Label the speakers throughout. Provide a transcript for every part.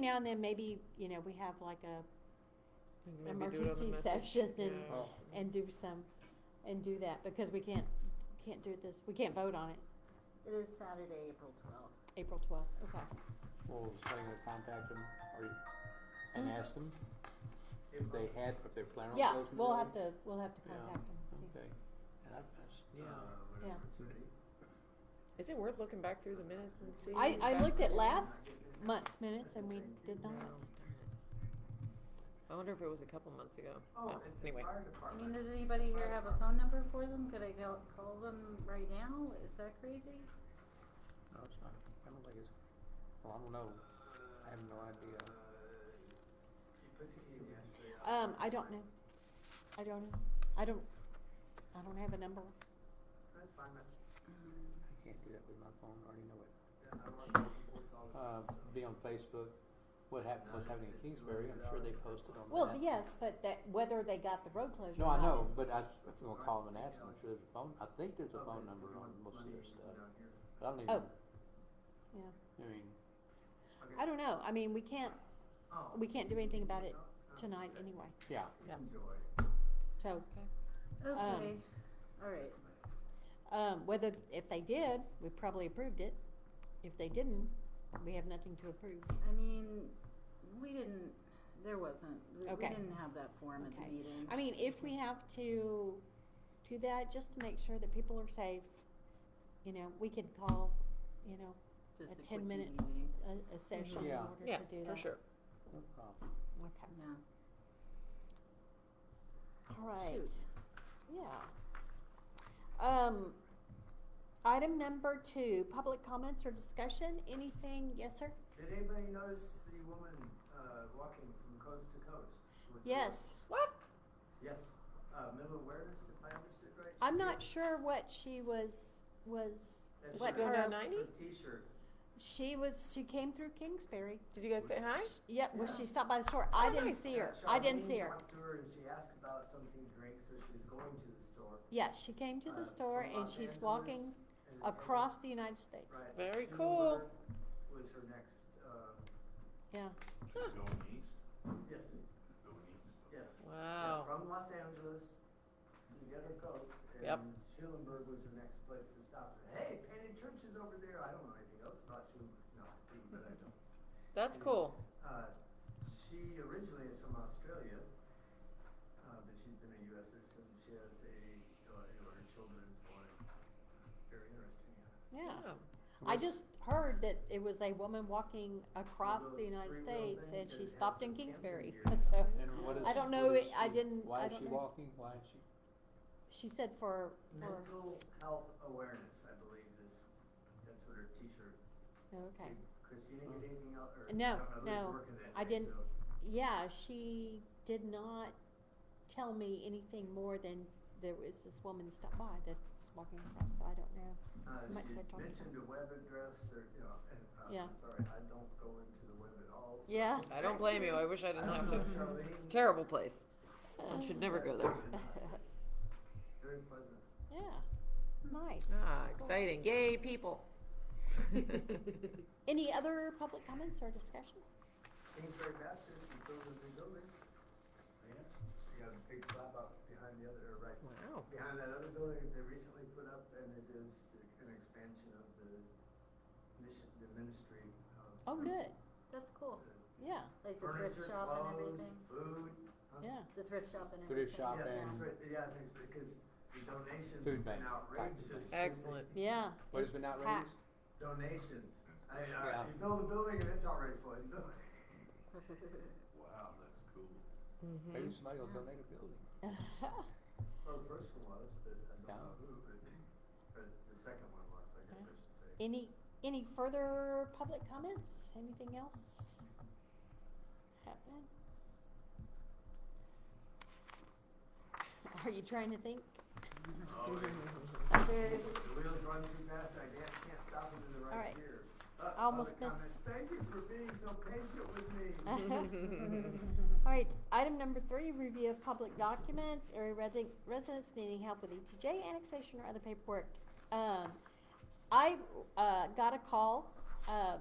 Speaker 1: Now and then, maybe, you know, we have like a
Speaker 2: And maybe do it on the
Speaker 1: emergency
Speaker 2: message.
Speaker 1: session and,
Speaker 2: Yeah.
Speaker 3: Oh,
Speaker 1: and do some, and do that, because we can't, can't do this, we can't vote on it
Speaker 4: It is Saturday, April twelfth.
Speaker 1: April twelfth, okay.
Speaker 3: well, so you to contact them, or you, and ask them if they had, if they're planning on
Speaker 1: Mm-hmm. Yeah,
Speaker 3: closing the
Speaker 1: we'll
Speaker 3: road?
Speaker 1: have to, we'll have to
Speaker 3: Yeah.
Speaker 1: contact them, see.
Speaker 3: Okay, and I, that's, yeah,
Speaker 1: Yeah.
Speaker 2: Is it worth looking back through the minutes and seeing?
Speaker 1: I,
Speaker 2: if
Speaker 1: I
Speaker 2: that's
Speaker 1: looked at
Speaker 2: what-
Speaker 1: last month's minutes and we did not,
Speaker 2: Oh, darn it. I wonder if it was a couple months ago. Oh, Anyway,
Speaker 4: I mean, does anybody here have a phone number for them? Could I go call them right now? Is that crazy?
Speaker 3: no, it's not, I don't think it's, well, I don't know, I have no idea.
Speaker 1: um, I don't know, I don't know, I don't, I don't have a number.
Speaker 3: I can't do that with my phone, I already know it. Uh, be on Facebook, what happened, what's happening in Kingsbury, I'm sure they posted on that.
Speaker 1: Well, yes, but that, whether they got the road closure
Speaker 3: No,
Speaker 1: or
Speaker 3: I
Speaker 1: not
Speaker 3: know,
Speaker 1: is-
Speaker 3: but I, s- if you wanna call them and ask them, I'm sure there's a phone, I think there's a phone number on most of their stuff, but I don't even,
Speaker 1: Oh. yeah,
Speaker 3: I mean,
Speaker 1: I don't know, I mean, we can't, we can't do anything about it tonight anyway,
Speaker 3: yeah.
Speaker 1: so.
Speaker 4: Okay, all right.
Speaker 1: Um, whether, if they did, we probably approved it. If they didn't, we have nothing to approve.
Speaker 4: I mean, we didn't, there wasn't, we we
Speaker 1: Okay.
Speaker 4: didn't have that form at the
Speaker 1: Okay.
Speaker 4: meeting.
Speaker 1: I mean, if we have to do that, just to make sure that people are safe, you know, we could call, you know,
Speaker 4: Just
Speaker 1: a
Speaker 4: quick
Speaker 1: 10 minute
Speaker 4: meeting.
Speaker 1: a, a session in
Speaker 3: Yeah.
Speaker 1: order to do
Speaker 2: yeah,
Speaker 1: that.
Speaker 2: for sure.
Speaker 3: No problem.
Speaker 1: Okay,
Speaker 4: Yeah.
Speaker 1: all right,
Speaker 4: Shoot.
Speaker 1: yeah. Um, item number two, public comments or discussion, anything, yes, sir?
Speaker 5: Did anybody notice the woman uh, walking from coast to coast? with the-
Speaker 1: Yes.
Speaker 2: What?
Speaker 5: Yes, uh, mental awareness, if I understood right.
Speaker 1: I'm not sure what she was, was,
Speaker 5: That's
Speaker 1: what
Speaker 5: right.
Speaker 2: going
Speaker 1: her,
Speaker 2: down ninety?
Speaker 5: Her T-shirt.
Speaker 1: she was, she came through Kingsbury.
Speaker 2: Did you guys say hi?
Speaker 1: Yep, well, she stopped by the store. I
Speaker 2: Oh,
Speaker 1: didn't
Speaker 2: nice.
Speaker 1: see her.
Speaker 5: Uh,
Speaker 1: I didn't see
Speaker 5: Charlene
Speaker 1: her.
Speaker 5: talked to her and she asked about something to drink, so she was going to the store.
Speaker 1: Yeah, she came to
Speaker 5: uh,
Speaker 1: the store
Speaker 5: from
Speaker 1: and
Speaker 5: Los
Speaker 1: she's
Speaker 5: Angeles
Speaker 1: walking
Speaker 5: and- and-
Speaker 1: across the United States.
Speaker 5: right,
Speaker 2: Very
Speaker 5: Schumer
Speaker 2: cool.
Speaker 5: Was her next, uh,
Speaker 1: Yeah,
Speaker 6: Going east,
Speaker 5: yes,
Speaker 6: going east.
Speaker 5: yes. Yeah,
Speaker 2: Wow.
Speaker 5: From Los Angeles to the other coast,
Speaker 2: Yep.
Speaker 5: and Schulenburg was the next place to stop. Hey, Painted Church is over there, I don't know anything else about Schulenburg, no, I do, but I don't.
Speaker 2: That's cool.
Speaker 5: Uh, she originally is from Australia, uh, but she's been a US citizen, she has a, uh, you know, her children's one, very interesting, yeah.
Speaker 1: yeah.
Speaker 2: Yeah.
Speaker 1: I just heard that it was a woman walking across
Speaker 5: Little
Speaker 1: the United
Speaker 5: three-wheel
Speaker 1: States
Speaker 5: thing
Speaker 1: and
Speaker 5: that
Speaker 1: she
Speaker 5: has
Speaker 1: stopped in
Speaker 5: some camping
Speaker 1: Kingsbury.
Speaker 5: gear.
Speaker 1: So
Speaker 3: And what is?
Speaker 1: I don't
Speaker 3: what
Speaker 1: know,
Speaker 3: is
Speaker 1: it- I
Speaker 3: she-
Speaker 1: didn't- I
Speaker 3: Why is
Speaker 1: don't
Speaker 3: she
Speaker 1: know.
Speaker 3: walking? Why is she?
Speaker 1: she said for, for,
Speaker 5: Mental health awareness, I believe, is, that's what her T-shirt.
Speaker 1: okay.
Speaker 5: Chris, you didn't get anything else, or? I
Speaker 1: No,
Speaker 5: don't know who's
Speaker 1: no,
Speaker 5: working that
Speaker 1: I
Speaker 5: day,
Speaker 1: didn't.
Speaker 5: so-
Speaker 1: Yeah, she did not tell me anything more than there was this woman stopped by that was walking across, so I don't know.
Speaker 5: Uh,
Speaker 1: Much
Speaker 5: she
Speaker 1: said Tommy.
Speaker 5: mentioned a web address or, you know, and, uh,
Speaker 1: Yeah.
Speaker 5: I'm sorry, I don't go into the web at all. so-
Speaker 1: Yeah.
Speaker 2: I don't blame you. I wish I
Speaker 5: I
Speaker 2: didn't
Speaker 5: don't
Speaker 2: have
Speaker 5: know,
Speaker 2: to.
Speaker 5: Charlene.
Speaker 2: It's a terrible place. One should never go there.
Speaker 5: Very pleasant.
Speaker 1: Yeah, nice.
Speaker 2: Ah, exciting. Yay, people.
Speaker 1: Any other public comments or discussion?
Speaker 5: Kingsbury Baptist, you build a new building. Yeah, you got a big slab out behind the other, or right,
Speaker 2: Wow.
Speaker 5: behind that other building that they recently put up, and it is an expansion of the mission, the ministry of.
Speaker 1: Oh, good,
Speaker 4: That's cool.
Speaker 1: yeah,
Speaker 4: Like the thrift
Speaker 5: Furniture,
Speaker 4: shop and
Speaker 5: clothes,
Speaker 4: everything.
Speaker 5: food. huh?
Speaker 1: yeah.
Speaker 4: The thrift shop and everything.
Speaker 3: Thrift shop
Speaker 5: Yes,
Speaker 3: and
Speaker 5: right, yes, it's because the donations
Speaker 3: Food
Speaker 5: have been
Speaker 3: bank type of thing.
Speaker 5: outrageous.
Speaker 2: Excellent.
Speaker 1: Yeah.
Speaker 3: what has
Speaker 1: it's
Speaker 3: been outrageous?
Speaker 1: packed.
Speaker 5: Donations. I, mean,
Speaker 3: Yeah.
Speaker 5: all right, you build a building and it's already full. You build-
Speaker 6: Wow, that's cool.
Speaker 2: Mm-hmm.
Speaker 3: Maybe somebody will donate a building.
Speaker 5: Well, the first one was, but I don't
Speaker 3: Yeah.
Speaker 5: know who, but, but the second one was, I guess I should say.
Speaker 1: Any, any further public comments? Anything else happening? Are you trying to think?
Speaker 5: Oh, it's-
Speaker 1: Okay.
Speaker 5: The wheels run too fast, I can't, can't stop them in the
Speaker 1: All right.
Speaker 5: right gear. Uh,
Speaker 1: I almost
Speaker 5: other comments.
Speaker 1: missed-
Speaker 5: Thank you for being so patient with me.
Speaker 1: All right, item number three, review of public documents, area resi- residents needing help with ETJ annexation or other paperwork. Um, I, uh, got a call, uh,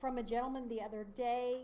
Speaker 1: from a gentleman the other day